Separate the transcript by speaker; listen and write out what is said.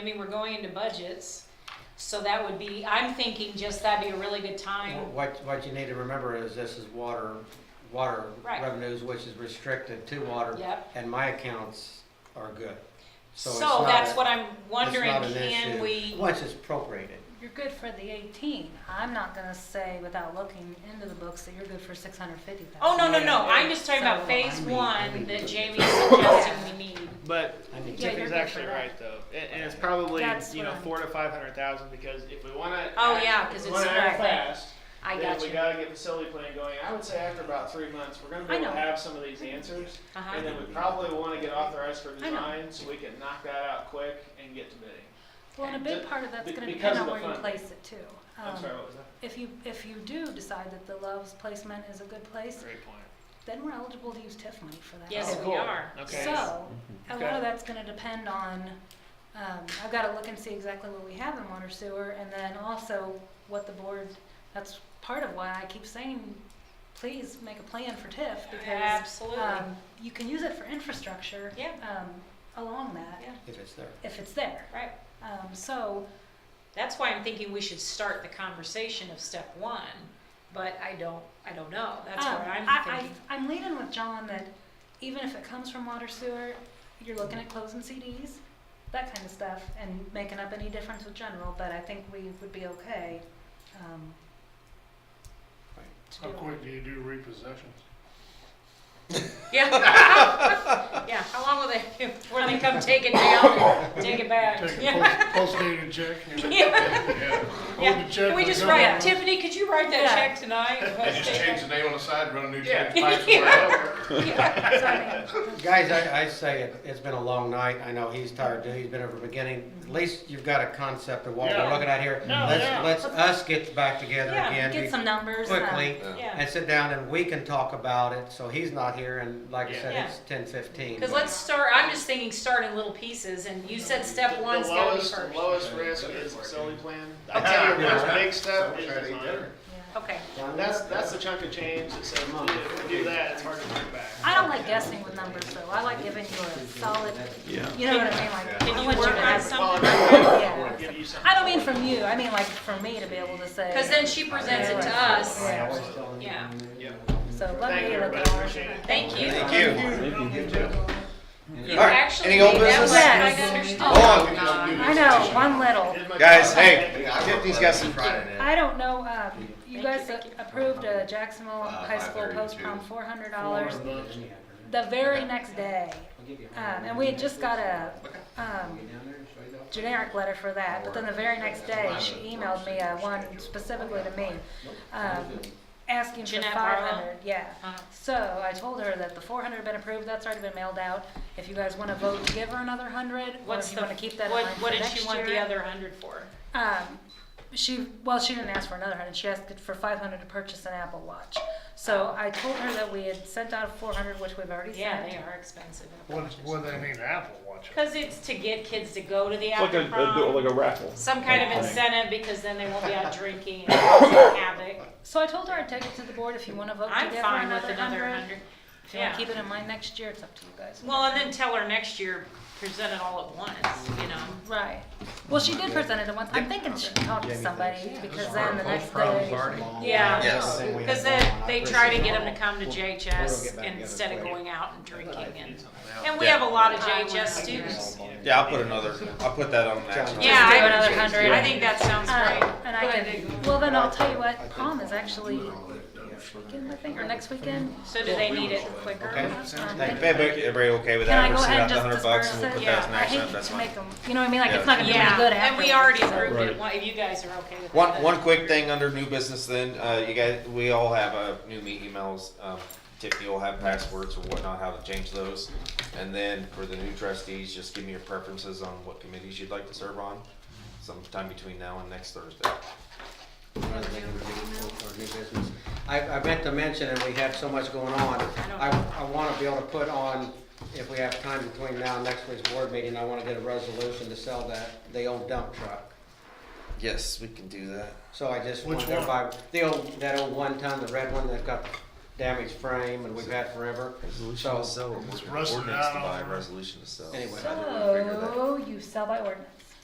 Speaker 1: I mean, we're going into budgets, so that would be, I'm thinking just that'd be a really good time.
Speaker 2: What, what you need to remember is this is water, water
Speaker 1: Right.
Speaker 2: revenues, which is restricted to water.
Speaker 1: Yep.
Speaker 2: And my accounts are good. So it's
Speaker 1: So
Speaker 2: not
Speaker 1: that's
Speaker 2: a-
Speaker 1: what I'm wondering,
Speaker 2: It's not an
Speaker 1: can
Speaker 2: issue.
Speaker 1: we,
Speaker 2: Once it's appropriated.
Speaker 3: You're good for the 18. I'm not going to say without looking into the books that you're good for 650,000.
Speaker 1: oh, no, no, no,
Speaker 4: Yeah,
Speaker 1: I'm
Speaker 4: yeah.
Speaker 1: just talking about
Speaker 3: So-
Speaker 1: phase
Speaker 2: I mean- I
Speaker 1: one
Speaker 2: mean-
Speaker 1: that Jamie's suggesting we need.
Speaker 4: But
Speaker 2: I mean,
Speaker 3: Yeah, you're
Speaker 4: Tiffany's
Speaker 3: good
Speaker 4: actually
Speaker 3: for that.
Speaker 4: right though, and, and it's probably
Speaker 3: That's
Speaker 4: you
Speaker 3: what
Speaker 4: know
Speaker 3: I'm-
Speaker 4: four to five hundred thousand because if we want to,
Speaker 1: Oh, yeah, 'cause it's
Speaker 4: act
Speaker 1: right.
Speaker 4: fast,
Speaker 1: I
Speaker 4: then
Speaker 1: got
Speaker 4: we
Speaker 1: you.
Speaker 4: got to get facility plan going. I would say after about three months, we're going to be
Speaker 3: I
Speaker 4: able to
Speaker 3: know.
Speaker 4: have some of these answers, and
Speaker 1: Uh-huh.
Speaker 4: then we probably want to get authorized for
Speaker 3: know.
Speaker 4: design so we can knock that out quick and get to bidding.
Speaker 3: Well, and a big part of that's
Speaker 4: Be-
Speaker 3: going to
Speaker 4: because
Speaker 3: depend
Speaker 4: of
Speaker 3: on
Speaker 4: the
Speaker 3: where you
Speaker 4: funding.
Speaker 3: place it too.
Speaker 4: I'm
Speaker 3: Um,
Speaker 4: sorry, what was that?
Speaker 3: If you, if you do decide that the Love's placement is a good place,
Speaker 4: Great point.
Speaker 3: then we're eligible to use TIF money for that.
Speaker 1: Yes,
Speaker 4: Oh,
Speaker 1: we
Speaker 4: cool.
Speaker 1: are.
Speaker 4: Okay.
Speaker 3: So, a lot
Speaker 4: Okay.
Speaker 3: of that's gonna depend on, um, I've gotta look and see exactly what we have in water sewer, and then also what the board, that's part of why I keep saying, please make a plan for TIF, because,
Speaker 1: Absolutely.
Speaker 3: um, you can use it for infrastructure,
Speaker 1: Yeah.
Speaker 3: um, along that,
Speaker 1: Yeah.
Speaker 2: if it's there.
Speaker 3: if it's there.
Speaker 1: Right.
Speaker 3: Um, so,
Speaker 1: That's why I'm thinking we should start the conversation of step one, but I don't, I don't know. That's
Speaker 3: um,
Speaker 1: what I'm
Speaker 3: I,
Speaker 1: thinking.
Speaker 3: I, I'm leaning with John that even if it comes from water sewer, you're looking at closing CDs, that kind of stuff, and making up any difference with general, but I think we would be okay, um, to
Speaker 5: How
Speaker 3: do it.
Speaker 5: quick do you do repossessions?
Speaker 1: Yeah. Yeah, how long will they, before they come take it down and take it back?
Speaker 5: Take
Speaker 1: Yeah.
Speaker 5: a post dated check? Yeah.
Speaker 1: Yeah.
Speaker 5: Hold the check.
Speaker 1: Can we
Speaker 5: let
Speaker 1: just
Speaker 5: go.
Speaker 1: write, Tiffany, could you write that
Speaker 3: Yeah.
Speaker 1: check tonight?
Speaker 6: They just change the name on the side, run a new
Speaker 4: Yeah.
Speaker 6: tank pipe.
Speaker 3: So, I mean,
Speaker 2: Guys, I, I say it, it's been a long night. I know he's tired too. He's been over the beginning. At least you've got a concept of what we're
Speaker 4: Yeah.
Speaker 2: looking at here.
Speaker 4: No,
Speaker 2: Let's,
Speaker 4: yeah.
Speaker 2: let's us get back together
Speaker 1: Yeah,
Speaker 2: again.
Speaker 3: Get some numbers. um,
Speaker 2: Quickly.
Speaker 6: Yeah.
Speaker 1: Yeah,
Speaker 2: and sit down and we can talk about it, so he's not here, and like I said,
Speaker 1: Yeah.
Speaker 2: it's ten fifteen.
Speaker 1: because let's start, I'm just thinking start in little pieces, and you said step
Speaker 4: The-
Speaker 1: one's
Speaker 4: the
Speaker 1: gotta be
Speaker 4: lowest,
Speaker 1: first.
Speaker 4: The lowest risk is facility plan. I
Speaker 2: Okay.
Speaker 4: tell you,
Speaker 2: Yeah.
Speaker 4: one big step is
Speaker 6: Someone tried to eat
Speaker 4: design.
Speaker 6: dinner.
Speaker 3: yeah.
Speaker 1: Okay,
Speaker 4: That's that's the chunk of change that says if we do that, it's hard to turn back.
Speaker 3: I don't like guessing with numbers, though, I like giving you a solid, you know what I mean, like.
Speaker 1: can
Speaker 3: I
Speaker 1: you
Speaker 3: want
Speaker 1: work
Speaker 3: to
Speaker 1: on
Speaker 3: have-
Speaker 1: something?
Speaker 3: Yeah.
Speaker 4: Give you something.
Speaker 3: I don't mean from you, I mean like for me to be able to say.
Speaker 1: Because then she presents it to us.
Speaker 3: Yeah.
Speaker 1: Yeah.
Speaker 4: Yeah.
Speaker 3: So let
Speaker 4: Thank
Speaker 3: me
Speaker 4: you,
Speaker 3: look
Speaker 4: everybody.
Speaker 3: at all of
Speaker 4: Appreciate
Speaker 3: that.
Speaker 4: it.
Speaker 1: Thank you. You
Speaker 6: All right,
Speaker 1: actually
Speaker 6: any old
Speaker 1: made that
Speaker 6: business?
Speaker 1: one
Speaker 3: Yes.
Speaker 1: kind of understood.
Speaker 6: Oh, we can all do
Speaker 3: I know, one little.
Speaker 4: Did my-
Speaker 6: Guys, hey, Tiffany's got some Friday night.
Speaker 3: I don't know, uh, you
Speaker 1: Thank
Speaker 3: guys
Speaker 1: you, thank you.
Speaker 3: approved a Jacksonville High School
Speaker 6: 532.
Speaker 3: post prom four hundred dollars the very next day. Um, and we had just got a, um, generic letter for that, but then the very next day, she emailed me, uh, one specifically to me, um, asking for
Speaker 1: Jeanette
Speaker 3: five
Speaker 1: Barlow?
Speaker 3: hundred, yeah.
Speaker 1: Uh-huh.
Speaker 3: So I told her that the four hundred had been approved, that's already been mailed out, if you guys wanna vote to give her another hundred, or
Speaker 1: What's
Speaker 3: if you
Speaker 1: the,
Speaker 3: wanna keep that in
Speaker 1: what,
Speaker 3: mind for
Speaker 1: what did
Speaker 3: next
Speaker 1: she want the
Speaker 3: year.
Speaker 1: other hundred for?
Speaker 3: Um, she well, she didn't ask for another hundred. She asked for five hundred to purchase an Apple Watch. So I told her that we had sent out four hundred, which we've already
Speaker 1: Oh. Yeah,
Speaker 3: sent.
Speaker 1: they are expensive.
Speaker 5: What, what do they mean Apple Watch?
Speaker 1: Because it's to get kids to go to the
Speaker 7: It's like a,
Speaker 1: after
Speaker 7: a,
Speaker 1: prom,
Speaker 7: like a raffle.
Speaker 1: some kind of incentive, because then they won't be out drinking and causing havoc.
Speaker 3: So I told her I'd take it to the board if you want to vote
Speaker 1: I'm
Speaker 3: to give
Speaker 1: fine
Speaker 3: her
Speaker 1: with
Speaker 3: another
Speaker 1: another
Speaker 3: hundred.
Speaker 1: hundred.
Speaker 3: If you want
Speaker 1: Yeah.
Speaker 3: to keep it in mind next year, it's up to you guys.
Speaker 1: Well, and then tell her next year, present it all at once, you know?
Speaker 3: right. Well, she did present it at once. I'm thinking she talked to somebody because then the next day.
Speaker 1: Yeah.
Speaker 6: Yes.
Speaker 1: Because then they try to get them to come to JHS instead of going out and drinking and, and we
Speaker 6: Yeah.
Speaker 1: have a lot of JHS students.
Speaker 6: Yeah, I'll put another, I'll put that on the action.
Speaker 1: Yeah,
Speaker 3: do
Speaker 1: I-
Speaker 3: another 100.
Speaker 1: I think that sounds
Speaker 3: Um,
Speaker 1: great.
Speaker 3: and I can, well, then I'll tell you what, prom is actually this weekend, I think, or next weekend.
Speaker 1: So do they need it quicker?
Speaker 3: Um,
Speaker 6: Everybody, everybody okay with
Speaker 3: Can I
Speaker 6: that?
Speaker 3: go ahead
Speaker 6: We'll send
Speaker 3: and
Speaker 6: out the
Speaker 3: just
Speaker 6: hundred bucks
Speaker 3: disperse
Speaker 6: and we'll
Speaker 3: it?
Speaker 6: put
Speaker 1: Yeah,
Speaker 6: that as an
Speaker 3: I hate
Speaker 6: action, that's
Speaker 3: to
Speaker 6: fine.
Speaker 3: make them, you know what I mean, like, it's
Speaker 6: Yeah.
Speaker 3: not gonna be any
Speaker 1: Yeah,
Speaker 3: good
Speaker 1: and
Speaker 3: afterwards.
Speaker 1: we already
Speaker 3: so-
Speaker 1: approved it, Why- if you guys are okay with that.
Speaker 6: One,
Speaker 1: then-
Speaker 6: one quick thing under new business then, uh, you guys, we all have, uh, new me emails, um, Tiffany will have passwords or whatnot, how to change those. And then for the new trustees, just give me your preferences on what committees you'd like to serve on, sometime between now and next Thursday.
Speaker 2: I, I meant to mention, and we have so much going on,
Speaker 1: don't-
Speaker 2: I, I wanna be able to put on, if we have time between now and next week's board meeting, I wanna get a resolution to sell that, the old dump truck.
Speaker 6: Yes, we can do that.
Speaker 2: So I just
Speaker 5: Which
Speaker 2: want everybody, the old, that old one ton, the red one that's got damaged frame and we've had forever.
Speaker 6: Resolution
Speaker 2: So,
Speaker 6: to sell, or
Speaker 5: It's
Speaker 6: ordinance
Speaker 5: rusted
Speaker 6: to
Speaker 5: out
Speaker 6: buy,
Speaker 5: on-
Speaker 6: resolution to sell.
Speaker 2: Anyway.
Speaker 6: How did we figure that?
Speaker 3: So, you sell by ordinance.